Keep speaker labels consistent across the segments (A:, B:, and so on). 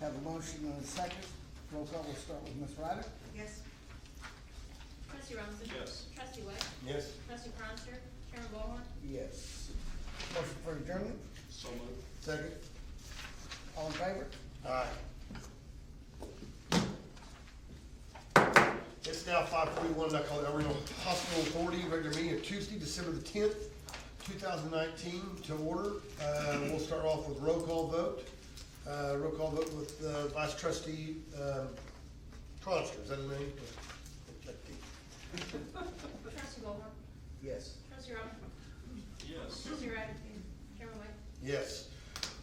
A: Have a motion and a second. Roll call, we'll start with Ms. Ryder.
B: yes,
C: Trustee Robinson.
D: Yes.
C: Trustee White.
E: Yes.
C: Trustee Cronster. Chairman Ballhorn.
A: Yes. Motion for adjournment,
D: So moved.
E: Second?
A: all in favor?
E: Aye. It's now five forty-one, I call the El Reno Hospital Authority regular meeting of Tuesday, December the tenth, two thousand nineteen, to order. Uh, we'll start off with roll call vote. Uh, roll call vote with, uh, Vice Trustee, um, Cronster, is that his name?
C: Trustee Ballhorn.
A: Yes.
C: Trustee Robinson.
D: Yes.
C: Trustee Ryder. Chairman White.
E: Yes.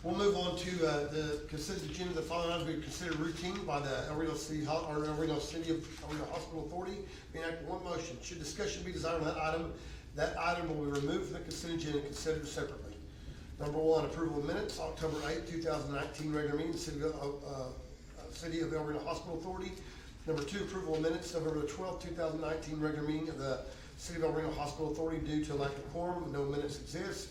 E: We'll move on to uh, the consent agenda. The following items will be considered routine by the El Reno City, Ho- or El Reno City of El Reno Hospital Authority. Be enacted in one motion. Should discussion be desired on that item, that item will be removed from the consent agenda and considered separately. Number one, approval of minutes, October eighth, two thousand nineteen, regular meeting, City of, uh, uh, City of El Reno Hospital Authority. Number two, approval of minutes, November twelfth, two thousand nineteen, regular meeting of the City of El Reno Hospital Authority due to lack of quorum, no minutes exist.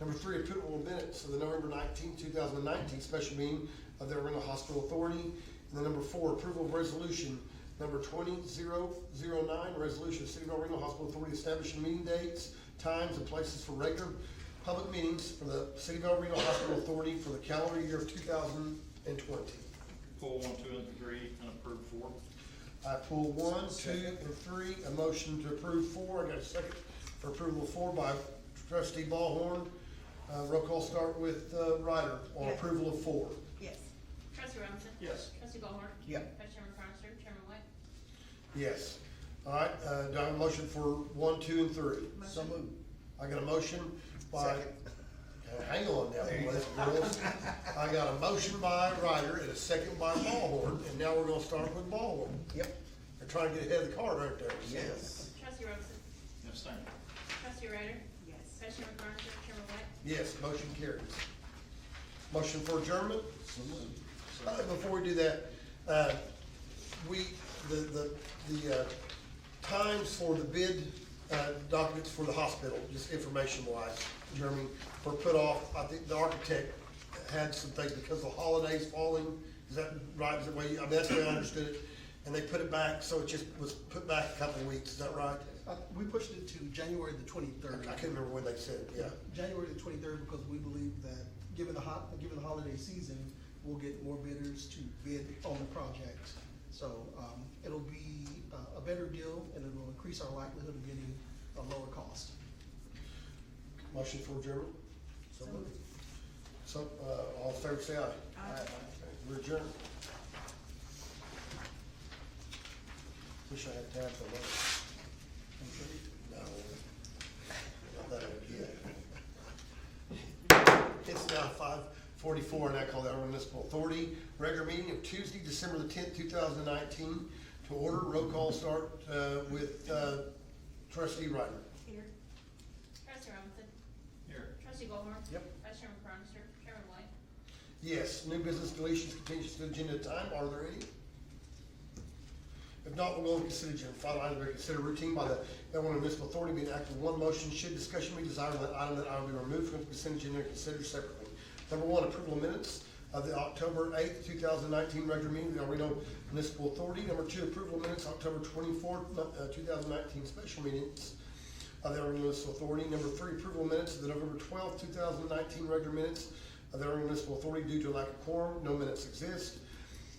E: Number three, approval of minutes of the November nineteenth, two thousand nineteen special meeting of the Orlando Hospital Authority. And then number four, approval of resolution number twenty zero zero nine, resolution of City of Orlando Hospital Authority establishing meeting dates, times, and places for regular public meetings for the City of Orlando Hospital Authority for the calendar year of two thousand and twenty.
D: Pull one, two, and three, and approve four.
E: I pull one, two, and three, a motion to approve four, I got a second for approval of four by trustee Ballhorn. Uh, roll call start with, uh, Ryder on
B: Yes.
E: approval of four.
B: yes,
C: Trustee Robinson.
D: Yes.
C: Trustee Ballhorn.
A: Yep.
C: Vice Chairman Cronster. Chairman White.
E: Yes. All right, uh, do I have a motion for one, two, and three?
A: So moved.
E: I got a motion by,
A: Second.
E: Uh, hang on now, boys and girls. I got a motion by Ryder and a second by Ballhorn, and now we're gonna start with Ballhorn.
A: Yep.
E: They're trying to get ahead of the card right there.
A: Yes.
C: Trustee Robinson.
D: Abstain.
C: Trustee Ryder.
B: yes.
C: Vice Chairman Cronster. Chairman White.
E: Yes, motion carries. Motion for adjournment?
A: So moved.
E: Uh, Before we do that, uh, we, the, the, the uh, times for the bid uh, documents for the hospital, just information wise, Jeremy, were put off. I think the architect had some things because of holidays falling, is that right, is that way, you- I mean, that's the way I understood it. And they put it back, so it just was put back a couple of weeks, is that right?
F: Uh, We pushed it to January the
E: I
F: twenty-third.
E: can't remember when they said it, yeah.
F: January the twenty-third, because we believe that, given the hot, given the holiday season, we'll get more bidders to bid on the project. So, um, it'll be uh, a better deal, and it will increase our likelihood of getting a lower cost.
E: Motion for adjournment?
A: So moved.
E: So, uh, all in favor, say aye.
B: Aye.
E: We're adjourned. Wish I had time for that. No. Not that I did. It's now five forty-four, and I call the Arlington Municipal Authority regular meeting of Tuesday, December the tenth, two thousand nineteen. To order, roll call start, uh, with, uh, trustee Ryder.
B: Here,
C: Trustee Robinson.
D: Here.
C: Trustee Ballhorn.
E: Yep.
C: Vice Chairman Cronster. Chairman White.
E: Yes, new business deletions, continues to agenda time, are there any? If not, we'll go and consider agenda, final item, to consider routine by the Illinois Municipal Authority being acted in one motion, should discussion be desired on that item, that item be removed from the consent agenda and considered separately. Number one, approval of minutes of the October eighth, two thousand nineteen regular meeting of the El Reno Municipal Authority. Number two, approval of minutes October twenty-fourth, uh, two thousand nineteen special meetings of the Illinois Municipal Authority. Number three, approval of minutes of the November twelfth, two thousand nineteen regular minutes of the Illinois Municipal Authority due to lack of quorum, no minutes exist.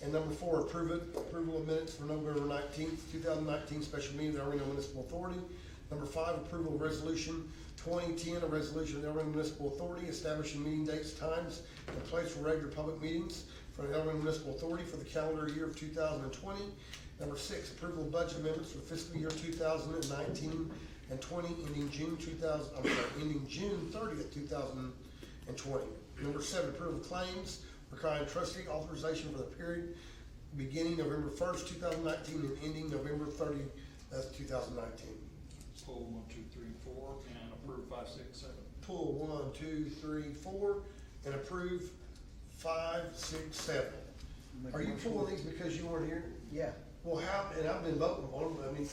E: And number four, approve it, approval of minutes for November nineteenth, two thousand nineteen, special meeting of the Illinois Municipal Authority. Number five, approval of resolution twenty-ten, a resolution of the Illinois Municipal Authority establishing meeting dates, times, and place for regular public meetings for the Illinois Municipal Authority for the calendar year of two thousand and twenty. Number six, approval of budget amendments for fiscal year two thousand and nineteen and twenty, ending June two thousand, I'm sorry, ending June thirtieth, two thousand and twenty. Number seven, approval of claims requiring trustee authorization for the period beginning November first, two thousand nineteen, and ending November thirty, that's two thousand nineteen.
D: Pull one, two, three, and four, and approve five, six, seven.
E: Pull one, two, three, four, and approve five, six, seven.
A: Make a
E: Are you
A: motion.
E: pulling these because you weren't here?
A: Yeah.
E: Well, how, and I've been voting on them, I mean,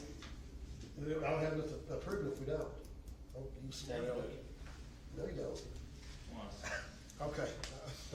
E: I don't have nothing to approve if we don't. Oh, you smart aleck. No, you don't.
D: One.
E: Okay.